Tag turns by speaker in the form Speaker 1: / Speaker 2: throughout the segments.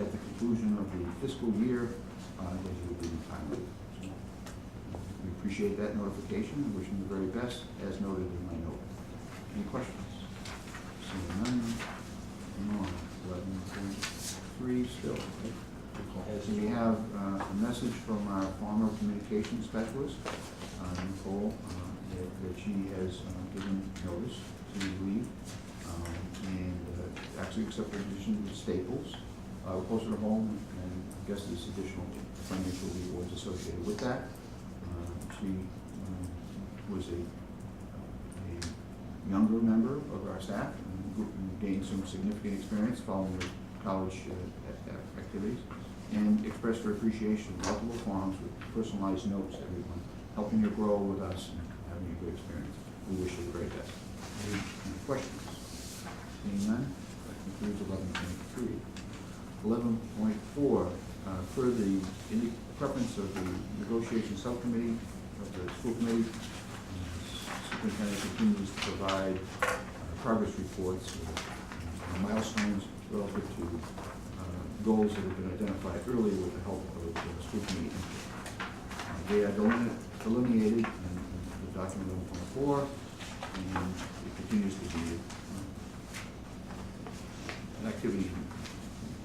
Speaker 1: conclusion of the fiscal year, uh, that he will be retiring. So, We appreciate that notification, and wish him the very best, as noted in my note. Any questions? Seeing none, moving on, eleven point three still. right? So we have uh, a message from our former communications specialist, uh, Nicole, uh, that that she has uh, given notice to leave, um, and uh, actually accepted a position with Staples, uh, closer to home, and I guess there's additional financial rewards associated with that. Uh, She um, was a a younger member of our staff and who gained some significant experience following their college uh, a- a- activities and expressed her appreciation in multiple forms with personalized notes to everyone, helping her grow with us and having a good experience. We wish you the very best. Any any questions? Seeing none, that concludes eleven point three. Eleven point four, uh, per the, in the preference of the negotiation subcommittee of the school committee, Superintendent continues to provide uh, progress reports or milestones relative to uh, goals that have been identified earlier with the help of the school committee. Uh, They are deline- delineated in in the document eleven point four, and it continues to be uh, an activity in-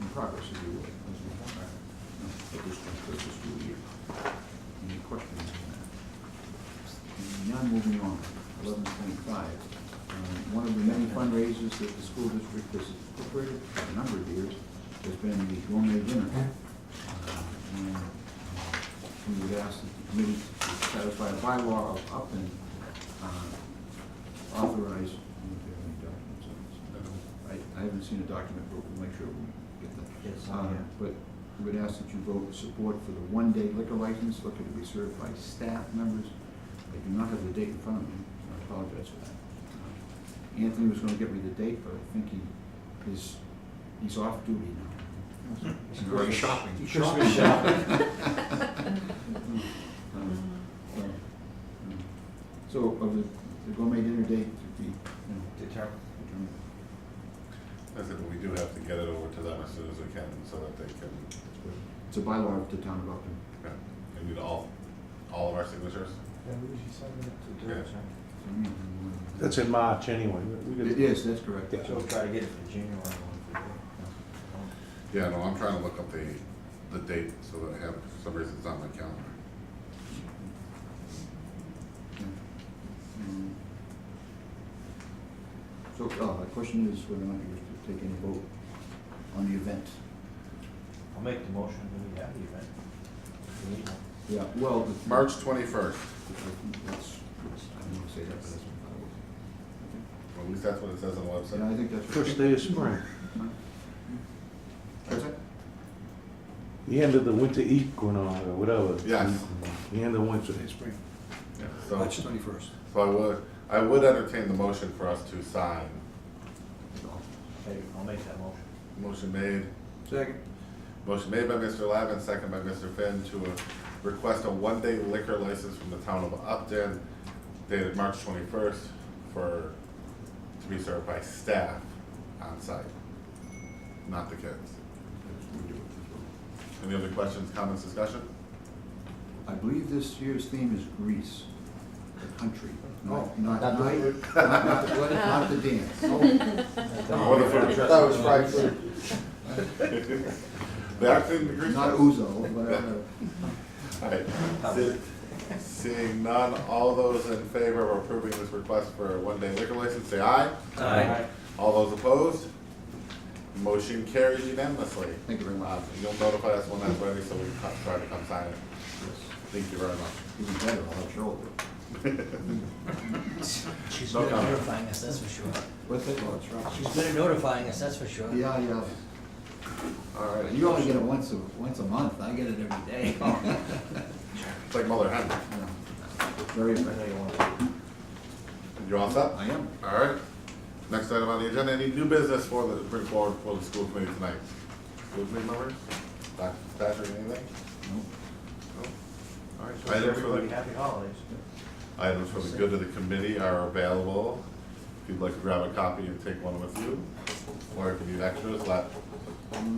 Speaker 1: in progress, if you will, as we, uh, at this point, for this school year. Any questions on that? Now moving on, eleven point five. One of the many fundraisers that the school district has incorporated for a number of years has been the gourmet dinner. Uh, And uh, we would ask that the committee to satisfy a bylaw of Upton uh, authorize, I don't know if they have any documents on this. I I haven't seen a document, but we'll make sure we get that.
Speaker 2: Yes,
Speaker 1: Uh,
Speaker 2: yeah.
Speaker 1: But we would ask that you vote support for the one-day liquor license, liquor to be served by staff members. I do not have the date in front of me, so I apologize for that. Anthony was gonna give me the date, but I think he is, he's off duty now.
Speaker 3: Or you shopping?
Speaker 2: Christmas shopping.
Speaker 1: Um, so, um, So of the the gourmet dinner date to be, you know,
Speaker 2: Determine.
Speaker 1: determined.
Speaker 3: I said, but we do have to get it over to them as soon as we can, so that they can,
Speaker 1: It's a bylaw of the town of Upton.
Speaker 3: yeah, they need all, all of our signatures.
Speaker 4: That's in March anyway. We- we
Speaker 1: It
Speaker 4: could-
Speaker 1: is, that's correct.
Speaker 4: Yeah.
Speaker 2: She'll try to get it for January. one
Speaker 3: Yeah, no, I'm trying to look up the, the date, so that I have, for some reason, it's on my calendar.
Speaker 1: Mm. So, uh, the question is whether or not you wish to take any vote on the event.
Speaker 2: for I'll make the motion when we have the event. We need one.
Speaker 1: Yeah, well. the-
Speaker 3: March twenty-first,
Speaker 1: That's, I don't wanna say that, but that's. what I would-
Speaker 3: at least that's what it says on the
Speaker 1: Yeah, I
Speaker 3: website.
Speaker 1: think that's. what-
Speaker 4: First day of spring,
Speaker 1: That's it?
Speaker 4: the end of the winter equinox or whatever.
Speaker 3: Yes.
Speaker 4: The end of winter.
Speaker 5: Spring,
Speaker 3: Yeah,
Speaker 1: Oh.
Speaker 5: March
Speaker 3: So,
Speaker 5: twenty-first.
Speaker 3: so I would, I would entertain the motion for us to sign.
Speaker 2: Okay, I'll make that motion.
Speaker 3: Motion made,
Speaker 5: Second.
Speaker 3: motion made by Mr. Lavin, second by Mr. Finn, to uh, request a one-day liquor license from the town of Upton dated March twenty-first for, to be served by staff on site, not the kids. Any other questions, comments, discussion?
Speaker 1: I believe this year's theme is Greece, the country, not, not,
Speaker 5: Not
Speaker 1: not,
Speaker 5: the-
Speaker 1: not not the, not the dance.
Speaker 3: Oh, the food.
Speaker 2: That was fried
Speaker 3: The Upton Grease
Speaker 1: Not
Speaker 3: Fest.
Speaker 1: Uzo, but, uh,
Speaker 3: Alright, see- seeing none, all those in favor of approving this request for a one-day liquor license, say aye.
Speaker 2: Aye.
Speaker 3: All those opposed? Motion carries unanimously.
Speaker 1: thank you very much.
Speaker 3: Um, You'll notify us when that's ready, so we can come- try to come sign it.
Speaker 1: Yes.
Speaker 3: Thank you very much.
Speaker 1: Even better, I'll let you hold it.
Speaker 6: She's
Speaker 3: No
Speaker 6: good at
Speaker 3: comment.
Speaker 6: notifying us, that's for sure.
Speaker 1: What's that, Lodge? Right.
Speaker 6: She's good at notifying us, that's for sure.
Speaker 1: Yeah, yeah.
Speaker 3: All right,
Speaker 1: You only get it once a, once a month, I get it every day.
Speaker 3: it's like Mother Hen.
Speaker 1: Very
Speaker 2: I know
Speaker 1: effective.
Speaker 2: you want to.
Speaker 3: You all set?
Speaker 1: I am.
Speaker 3: All right. Next item on the agenda, any new business for the, bring forward for the school committee tonight? School committee members? Dr. Patrick, anything? No? All right.
Speaker 2: Wish
Speaker 3: Items for
Speaker 2: everybody
Speaker 3: the,
Speaker 2: happy holidays.
Speaker 3: items for the good of the committee are available. If you'd like to grab a copy and take one with you, or if you need extras, let